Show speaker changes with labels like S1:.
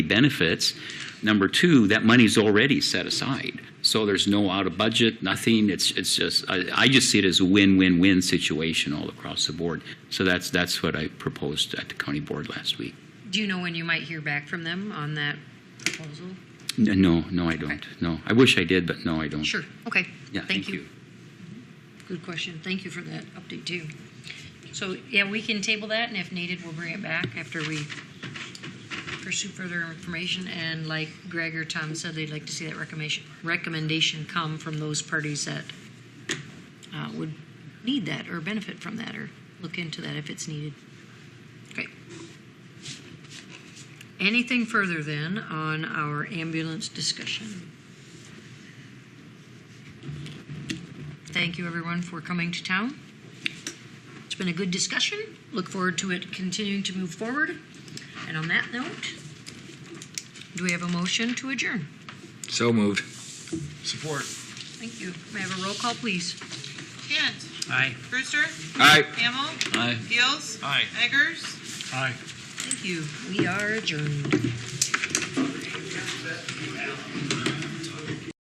S1: benefits. Number two, that money's already set aside. So there's no out of budget, nothing. It's, it's just, I, I just see it as a win-win-win situation all across the board. So that's, that's what I proposed at the county board last week.
S2: Do you know when you might hear back from them on that proposal?
S1: N- No, no, I don't. No, I wish I did, but no, I don't.
S2: Sure, okay.
S1: Yeah, thank you.
S2: Good question. Thank you for that update, too. So, yeah, we can table that, and if needed, we'll bring it back after we pursue further information. And like Greg or Tom said, they'd like to see that recommendation, recommendation come from those parties that uh, would need that or benefit from that or look into that if it's needed. Okay. Anything further then on our ambulance discussion? Thank you, everyone, for coming to town. It's been a good discussion. Look forward to it continuing to move forward. And on that note, do we have a motion to adjourn?
S3: So moved.
S4: Support.
S2: Thank you. May I have a roll call, please?
S5: Hand.
S4: Aye.
S5: Brewster.
S3: Aye.
S5: Hamel.
S1: Aye.
S5: Gills.
S4: Aye.
S5: Eggers.
S4: Aye.
S2: Thank you. We are adjourned.